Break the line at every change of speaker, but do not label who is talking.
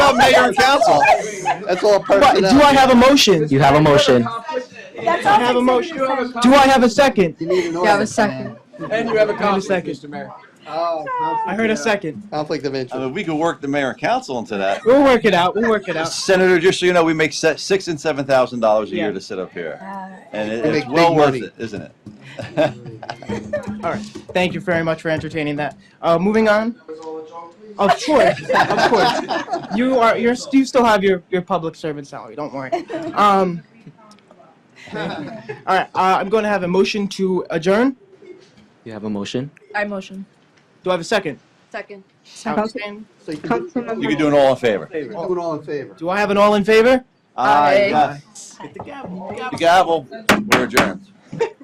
you're in council. That's all
But
personnel.
do I have a motion?
You have a motion.
That's
all
all.
have a motion.
Do I have a second?
You need an order.
You have a second.
And you have a
Wait a
conflict,
second.
Mr. Mayor.
Oh, conflict
I heard a
of-
second.
Conflict of
I
interest.
mean, we could work the mayor and council into that.
We'll work it out. We'll work it out.
Senator, just so you know, we make se- six and seven thousand dollars a
Yeah.
year to sit up here, and it,
We
it's
make
well
big
worth
money.
it, isn't it?
Thank you very much for entertaining that. Uh, moving on. Of course, of course. You are you're you still have your your public servant salary. Don't worry. Um. All right. Uh, I'm going to have a motion to adjourn.
You have a motion?
I motion.
Do I have a second?
Second.
Outstanding.
So you can do
You can do an all in favor.
it all in favor.
Oh, Do I have an all in favor?
Aye.
Aye.
yes.
Hit the gavel.
The gavel. We're adjourned.